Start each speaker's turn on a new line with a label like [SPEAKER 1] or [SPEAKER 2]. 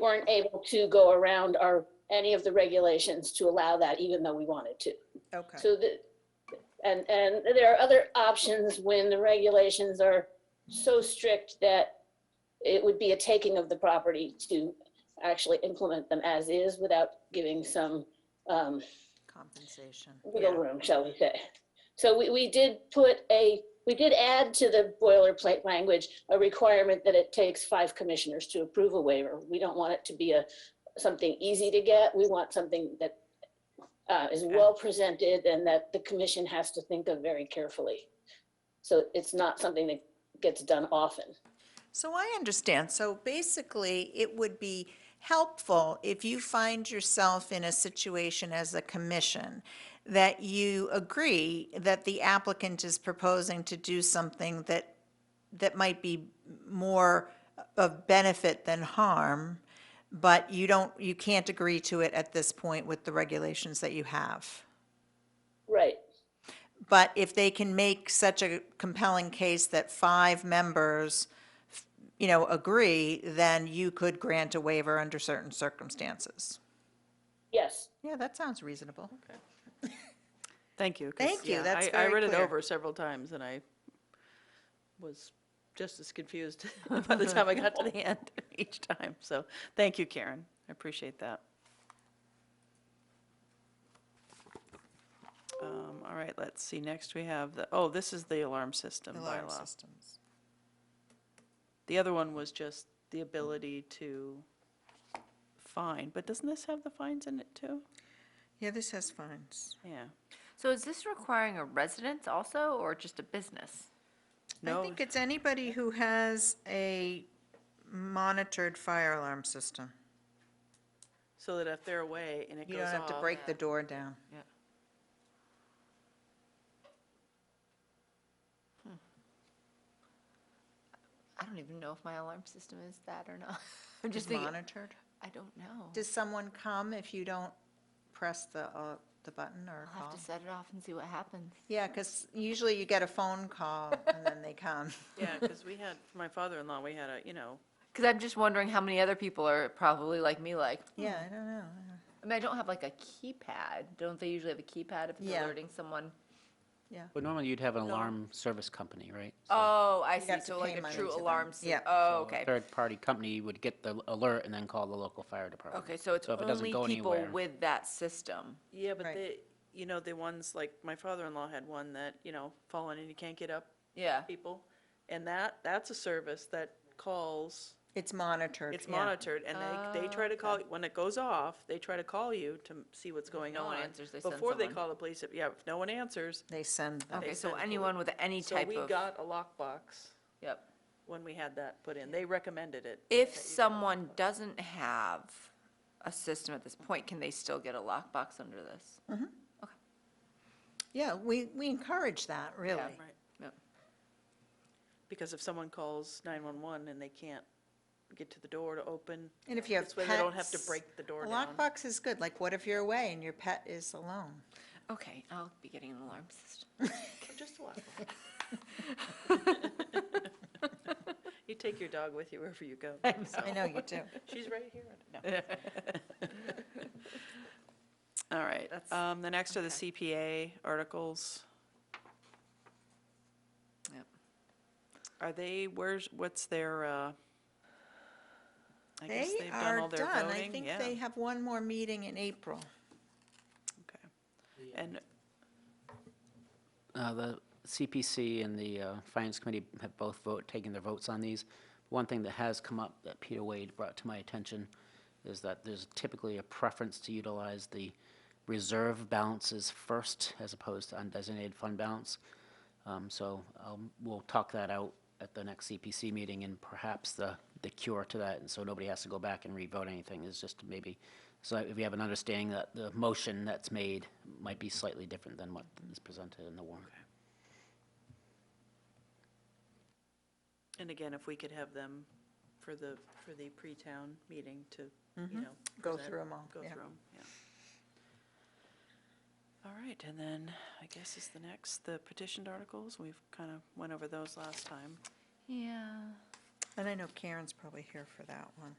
[SPEAKER 1] weren't able to go around our, any of the regulations to allow that, even though we wanted to.
[SPEAKER 2] Okay,
[SPEAKER 1] So the, and, and there are other options when the regulations are so strict that it would be a taking of the property to actually implement them as is without giving some um,
[SPEAKER 2] compensation.
[SPEAKER 1] wiggle room, shall we say. So we, we did put a, we did add to the boilerplate language a requirement that it takes five commissioners to approve a waiver. We don't want it to be a, something easy to get. We want something that uh, is
[SPEAKER 2] Okay.
[SPEAKER 1] well presented and that the commission has to think of very carefully. So it's not something that gets done often.
[SPEAKER 2] So I understand. So basically, it would be helpful if you find yourself in a situation as a commission that you agree that the applicant is proposing to do something that, that might be more of benefit than harm, but you don't, you can't agree to it at this point with the regulations that you have.
[SPEAKER 1] Right,
[SPEAKER 2] But if they can make such a compelling case that five members, you know, agree, then you could grant a waiver under certain circumstances.
[SPEAKER 1] yes.
[SPEAKER 2] Yeah, that sounds reasonable.
[SPEAKER 3] Thank you. 'cause,
[SPEAKER 2] Thank you,
[SPEAKER 3] yeah,
[SPEAKER 2] that's
[SPEAKER 3] I-
[SPEAKER 2] very
[SPEAKER 3] I read it
[SPEAKER 2] clear.
[SPEAKER 3] over several times, and I was just as confused by the time I got to the end each time. So, thank you, Karen. I appreciate that. Um, All right, let's see. Next, we have the, oh, this is the alarm system bylaw.
[SPEAKER 2] systems.
[SPEAKER 3] The other one was just the ability to fine, but doesn't this have the fines in it, too?
[SPEAKER 2] Yeah, this has fines.
[SPEAKER 3] Yeah.
[SPEAKER 4] So is this requiring a residence also, or just a business?
[SPEAKER 2] I
[SPEAKER 3] No.
[SPEAKER 2] think it's anybody who has a monitored fire alarm system.
[SPEAKER 3] So that if they're away and it
[SPEAKER 2] You
[SPEAKER 3] goes
[SPEAKER 2] don't
[SPEAKER 3] off.
[SPEAKER 2] have to break the door down.
[SPEAKER 4] I don't even know if my alarm system is that or not. I'm
[SPEAKER 2] Just
[SPEAKER 4] just thinking,
[SPEAKER 2] monitored.
[SPEAKER 4] I don't know.
[SPEAKER 2] Does someone come if you don't press the, uh, the button or
[SPEAKER 4] I'll have
[SPEAKER 2] call?
[SPEAKER 4] to set it off and see what happens.
[SPEAKER 2] Yeah, because usually you get a phone call and then they come.
[SPEAKER 3] Yeah, because we had, for my father-in-law, we had a, you know,
[SPEAKER 4] Because I'm just wondering how many other people are probably like me, like,
[SPEAKER 2] Yeah, I don't know.
[SPEAKER 4] I mean, I don't have like a keypad. Don't they usually have a keypad if it's
[SPEAKER 2] Yeah.
[SPEAKER 4] alerting someone?
[SPEAKER 5] But normally you'd have an alarm service company, right?
[SPEAKER 4] Oh, I see,
[SPEAKER 2] have to
[SPEAKER 4] so
[SPEAKER 2] pay
[SPEAKER 4] like a
[SPEAKER 2] money
[SPEAKER 4] true
[SPEAKER 2] to them.
[SPEAKER 4] alarm system.
[SPEAKER 2] Yeah.
[SPEAKER 4] Oh,
[SPEAKER 5] So a
[SPEAKER 4] okay.
[SPEAKER 5] Third-party company would get the alert and then call the local fire department.
[SPEAKER 4] Okay, so it's
[SPEAKER 5] if it doesn't
[SPEAKER 4] only
[SPEAKER 5] go
[SPEAKER 4] people
[SPEAKER 5] anywhere-
[SPEAKER 4] with that system.
[SPEAKER 3] yeah, but
[SPEAKER 2] Right.
[SPEAKER 3] the, you know, the ones, like, my father-in-law had one that, you know, fallen and you can't get up
[SPEAKER 4] Yeah.
[SPEAKER 3] people. And that, that's a service that calls,
[SPEAKER 2] It's monitored.
[SPEAKER 3] it's
[SPEAKER 2] yeah.
[SPEAKER 3] monitored, and they, they try to
[SPEAKER 4] Oh.
[SPEAKER 3] call, when it goes off, they try to call you to m- see what's going
[SPEAKER 4] no
[SPEAKER 3] on.
[SPEAKER 4] one answers, they send
[SPEAKER 3] Before they
[SPEAKER 4] someone.
[SPEAKER 3] call the police, if- yeah, if no one answers.
[SPEAKER 2] They send them.
[SPEAKER 4] Okay, so
[SPEAKER 3] send poli-
[SPEAKER 4] anyone with any
[SPEAKER 3] So
[SPEAKER 4] type
[SPEAKER 3] we
[SPEAKER 4] of,
[SPEAKER 3] got a lockbox
[SPEAKER 4] yep.
[SPEAKER 3] when we had that put in. They recommended it.
[SPEAKER 4] If someone doesn't have a system at this point, can they still get a lockbox under this?
[SPEAKER 2] Yeah, we, we encourage that, really.
[SPEAKER 3] Right.
[SPEAKER 4] Yep.
[SPEAKER 3] Because if someone calls 911 and they can't get to the door to open.
[SPEAKER 2] And if you have
[SPEAKER 3] This way they don't have to
[SPEAKER 2] pets,
[SPEAKER 3] break the door
[SPEAKER 2] a
[SPEAKER 3] down.
[SPEAKER 2] Lockbox is good, like what if you're away and your pet is alone?
[SPEAKER 4] Okay, I'll be getting an alarm system.
[SPEAKER 3] Just a lock. You take your dog with you wherever you go. so.
[SPEAKER 2] I know you do.
[SPEAKER 3] She's right here. No. All right,
[SPEAKER 4] That's-
[SPEAKER 3] um, the next are the CPA articles.
[SPEAKER 4] Yep.
[SPEAKER 3] Are they, where's, what's their, uh, I guess
[SPEAKER 2] They
[SPEAKER 3] they've done
[SPEAKER 2] are
[SPEAKER 3] all their
[SPEAKER 2] done. I
[SPEAKER 3] voting?
[SPEAKER 2] think
[SPEAKER 3] Yeah.
[SPEAKER 2] they have one more meeting in April.
[SPEAKER 3] Okay. And
[SPEAKER 5] Uh, The CPC and the uh, Finance Committee have both vote, taken their votes on these. One thing that has come up that Peter Wade brought to my attention is that there's typically a preference to utilize the reserve balances first as opposed to undesignated fund balance. Um, So um, we'll talk that out at the next CPC meeting and perhaps the, the cure to that, and so nobody has to go back and re-vote anything, is just maybe, so if we have an understanding that the motion that's made might be slightly different than what is presented in the warrant.
[SPEAKER 3] And again, if we could have them for the, for the pre-town meeting to,
[SPEAKER 2] Mm-hmm.
[SPEAKER 3] you know.
[SPEAKER 2] Go
[SPEAKER 3] present-
[SPEAKER 2] through 'em all,
[SPEAKER 3] Go
[SPEAKER 2] yeah.
[SPEAKER 3] through 'em, yeah. All right, and then I guess is the next, the petitioned articles. We've kind of went over those last time.
[SPEAKER 4] Yeah.
[SPEAKER 2] And I know Karen's probably here for that one.